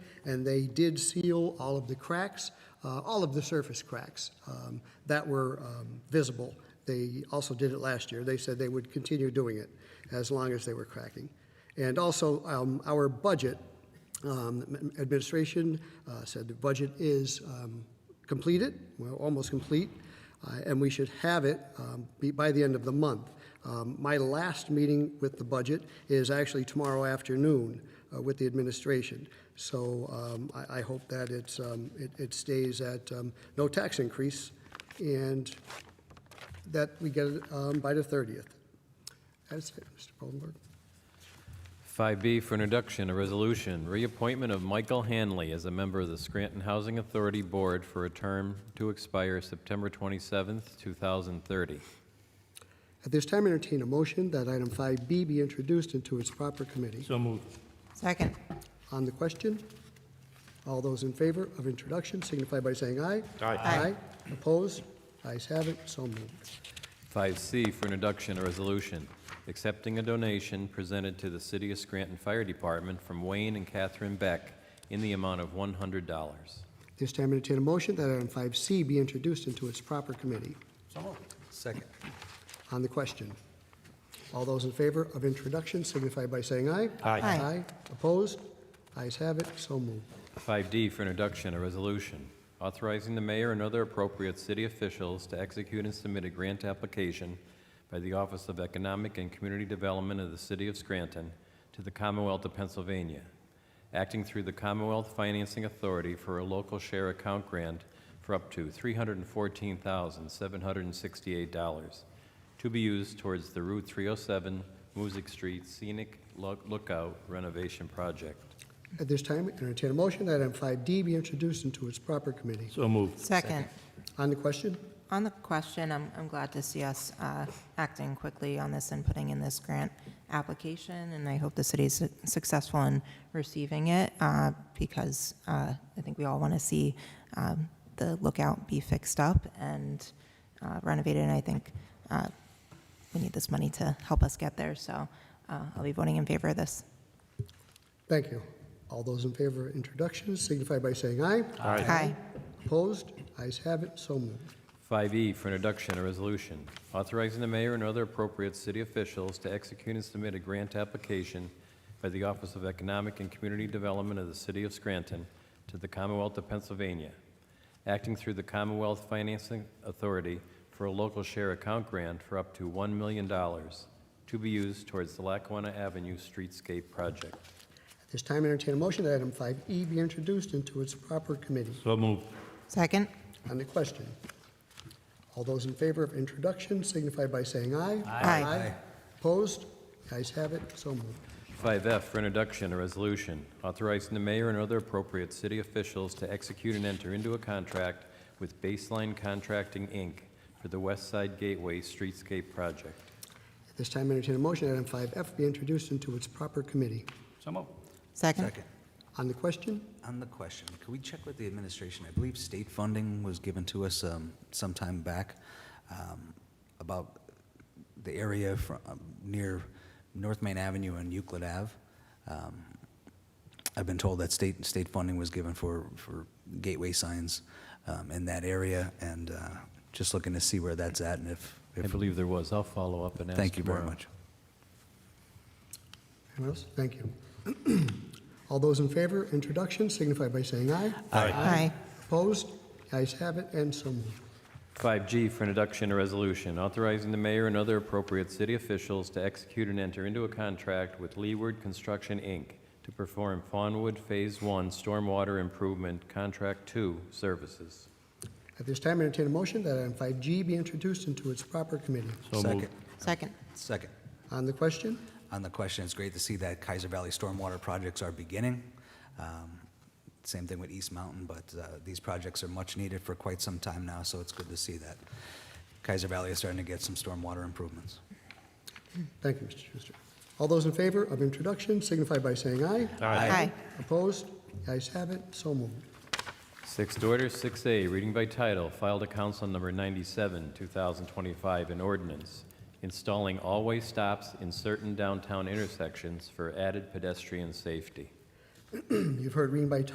and they did seal all of the cracks, uh, all of the surface cracks um, that were um, visible. They also did it last year. They said they would continue doing it as long as they were cracking. And also, um, our budget, um, administration uh, said the budget is um, completed, well, almost complete, uh, and we should have it um, be- by the end of the month. Um, My last meeting with the budget is actually tomorrow afternoon uh, with the administration. So um, I I hope that it's, um, it- it stays at um, no tax increase and that we get it um, by the 30th. That's it, Mr. Goldenberg. 5B for introduction, a resolution, reappointment of Michael Hanley as a member of the Scranton Housing Authority Board for a term to expire September 27th, 2030. At this time, entertain a motion that item 5B be introduced into its proper committee. So moved. Second. On the question, all those in favor of introduction signify by saying aye. Aye. Aye. Opposed? Ayes have it, so moved. 5C for introduction, a resolution, accepting a donation presented to the City of Scranton Fire Department from Wayne and Catherine Beck in the amount of $100. This time, entertain a motion that item 5C be introduced into its proper committee. Second. On the question, all those in favor of introduction signify by saying aye. Aye. Aye. Aye. Opposed? Ayes have it, so moved. 5D for introduction, a resolution authorizing the mayor and other appropriate city officials to execute and submit a grant application by the Office of Economic and Community Development of the City of Scranton to the Commonwealth of Pennsylvania, acting through the Commonwealth Financing Authority for a local share account grant for up to $314,768 to be used towards the Route 307 Music Street Scenic Lo- Lookout renovation project. At this time, entertain a motion that item 5D be introduced into its proper committee. So moved. Second. On the question, On the question, I'm, I'm glad to see us uh, acting quickly on this and putting in this grant application, and I hope the city's su- successful in receiving it, uh, because uh, I think we all want to see um, the lookout be fixed up and uh, renovated, and I think uh, we need this money to help us get there, so uh, I'll be voting in favor of this. thank you. All those in favor of introduction signify by saying aye. Aye. Opposed? Ayes have it, so moved. 5E E for introduction, a resolution authorizing the mayor and other appropriate city officials to execute and submit a grant application by the Office of Economic and Community Development of the City of Scranton to the Commonwealth of Pennsylvania, acting through the Commonwealth Financing Authority for a local share account grant for up to $1 million to be used towards the Lackawanna Avenue Streetscape Project. At this time, entertain a motion that item 5E be introduced into its proper committee. So moved. Second. On the question, all those in favor of introduction signify by saying aye. Aye. Opposed? Ayes have it, so moved. 5F for introduction, a resolution authorizing the mayor and other appropriate city officials to execute and enter into a contract with Baseline Contracting, Inc. for the West Side Gateway Streetscape Project. At this time, entertain a motion that item 5F be introduced into its proper committee. So moved. Second. Second. On the question, On the question, could we check with the administration? I believe state funding was given to us um, some time back um, about the area fro- um, near North Main Avenue and Euclid Ave. Um, I've been told that state, state funding was given for, for gateway signs um, in that area, and uh, just looking to see where that's at and if, I if, believe there was. I'll follow up and ask. thank you very tomorrow. much. anyone else? Thank you. All those in favor, of introduction signify by saying aye. Aye. Aye. Opposed? Ayes have it, and so moved. 5G for introduction, a resolution authorizing the mayor and other appropriate city officials to execute and enter into a contract with Leeward Construction, Inc. to perform Fawnwood Phase 1 Stormwater Improvement Contract 2 services. At this time, entertain a motion that item 5G be introduced into its proper committee. So Second. moved. Second. Second. On the question, on the question, it's great to see that Kaiser Valley stormwater projects are beginning. Um, Same thing with East Mountain, but uh, these projects are much needed for quite some time now, so it's good to see that Kaiser Valley is starting to get some stormwater improvements. thank you, Mr. Schuster. All those in favor of introduction signify by saying aye. Aye. Opposed? Ayes have it, so moved. Sixth order, 6A, reading by title, filed to council number 97, 2025, an ordinance installing all-way stops in certain downtown intersections for added pedestrian safety. You've heard reading by